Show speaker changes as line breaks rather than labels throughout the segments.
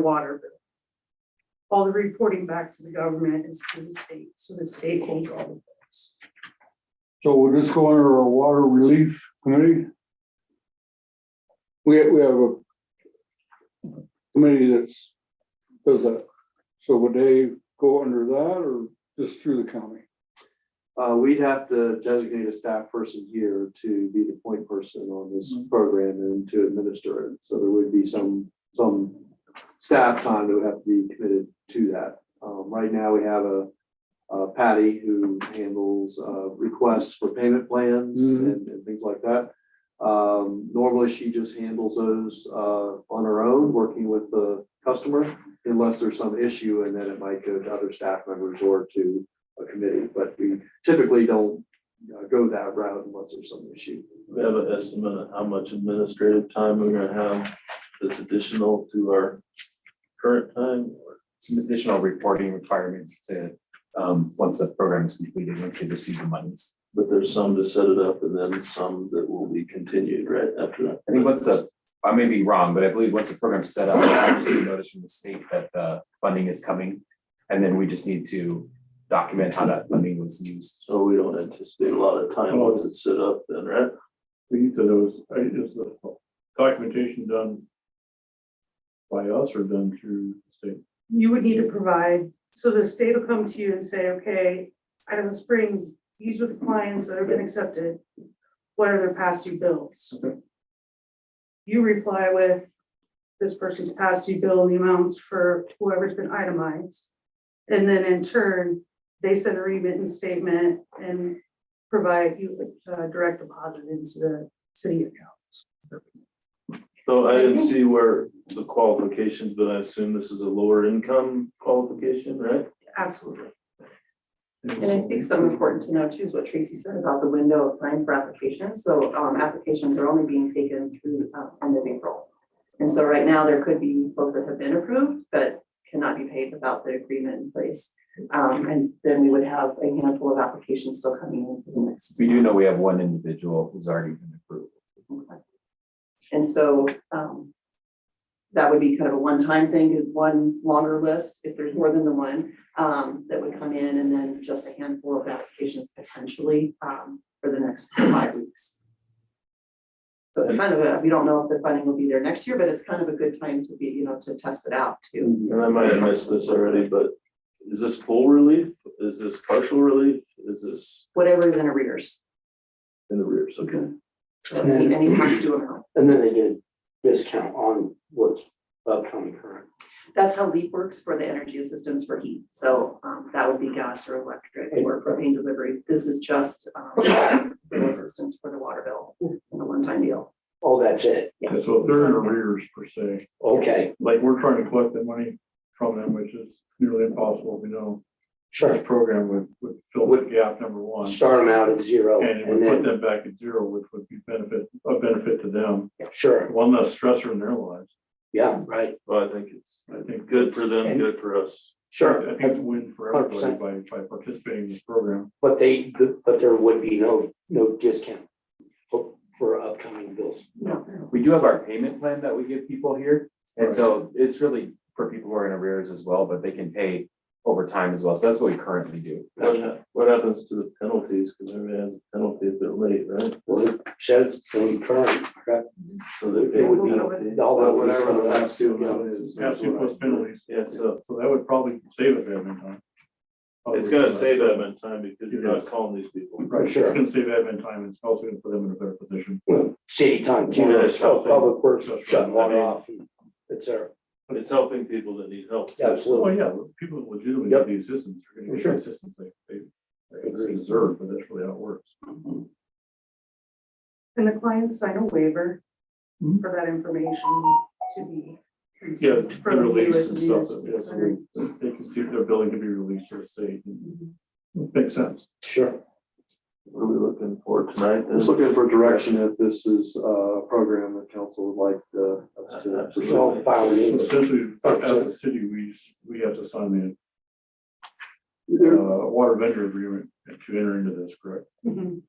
water bill. All the reporting back to the government is to the state, so the state holds all of those.
So will this go under our water relief committee? We, we have a committee that's, does that. So would they go under that or just through the county?
Uh, we'd have to designate a staff person here to be the point person on this program and to administer it. So there would be some, some staff time that would have to be committed to that. Um, right now, we have a uh, Patty who handles, uh, requests for payment plans
Mhm.
and, and things like that. Um, normally she just handles those, uh, on her own, working with the customer, unless there's some issue and then it might go to other staff members or to a committee, but we typically don't uh, go that route unless there's some issue.
We have an estimate of how much administrative time we're gonna have that's additional to our current time.
some additional reporting requirements to, um, once the program is completed, once they receive the monies.
But there's some to set it up and then some that will be continued right after that.
I think once a, I may be wrong, but I believe once the program's set up, I receive notice from the state that the funding is coming. And then we just need to document how that funding was used.
So we don't anticipate a lot of time once it's set up then, right?
We said it was, is the documentation done by us or done through the state?
You would need to provide, so the state will come to you and say, okay, Idaho Springs, these are the clients that have been accepted. What are their past due bills? You reply with this person's past due bill and the amounts for whoever's been itemized. And then in turn, they send a remittance statement and provide you with uh, direct deposit into the city account.
So I didn't see where the qualifications, but I assume this is a lower income qualification, right?
Absolutely.
And I think something important to know too is what Tracy said about the window of time for applications. So um, applications are only being taken through uh, end of April. And so right now, there could be folks that have been approved but cannot be paid without the agreement in place. Um, And then we would have a handful of applications still coming in for the next.
We do know we have one individual who's already been approved.
And so um, that would be kind of a one-time thing, is one longer list, if there's more than the one, um, that would come in, and then just a handful of applications potentially um, for the next five weeks. So it's kind of a, we don't know if the funding will be there next year, but it's kind of a good time to be, you know, to test it out too.
And I might have missed this already, but is this full relief? Is this partial relief? Is this
Whatever is in arrears,
in the rears? Okay.
any any past due amount.
And then they get a discount on what's upcoming current.
That's how LEAP works for the energy assistance for heat. So um, that would be gas or electric or propane delivery. This is just um, the assistance for the water bill, and a one-time deal.
Oh, that's it.
Yeah.
So if they're in arrears per se,
Okay,
like we're trying to collect the money from them, which is nearly impossible, we know.
sure.
This program would, would fill the gap number one,
Start them out at zero
and it would
and
put
then,
them back at zero, which would be benefit, a benefit to them,
sure,
one less stressor in their lives.
yeah, right,
Well, I think it's
I think
good for them, good for us.
sure.
I think it's a win for everybody by, by participating in this program.
But they, but there would be no, no discount for- for upcoming bills.
We do have our payment plan that we give people here. And so it's really for people who are in arrears as well, but they can pay over time as well. So that's what we currently do.
What hap- what happens to the penalties? Because everybody has a penalty if they're late, right?
Well, it says from current, correct?
So
It would be all
But
of
Whatever the
whatever.
past due amount is.
Past due plus penalties.
Yeah, so
So that would probably save us admin time.
it's gonna save them in time because you're not
Yes.
calling these people.
Right, it's
Sure.
gonna save admin time, and it's also gonna put them in a better position.
City time,
Yeah, it's
so
something.
public works
That's
shutting
right. I
water
mean-
off. and It's there,
But it's helping people that need help.
absolutely.
Well, Oh, yeah, people that legitimately need the assistance, are gonna get
Sure.
the assistance they, they they deserve, but that's really how it works.
And the clients sign a waiver
Mhm.
for that information to be
Yeah,
received
the
from you
release
as
and
the
stuff,
municipal
yes,
center.
they can see if their billing can be released or saved, makes sense.
Sure.
What are we looking for tonight?
Just looking for direction if this is uh, a program that council would like uh, us to pursue.
So, by all means.
Essentially, as a city, we, we have to sign the, uh, water vendor agreement to enter into this, correct?
Mhm.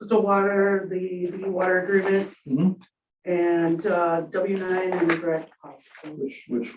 It's a water, the, the water agreement uh,
Mhm.
and W nine and the direct deposit.
Which, which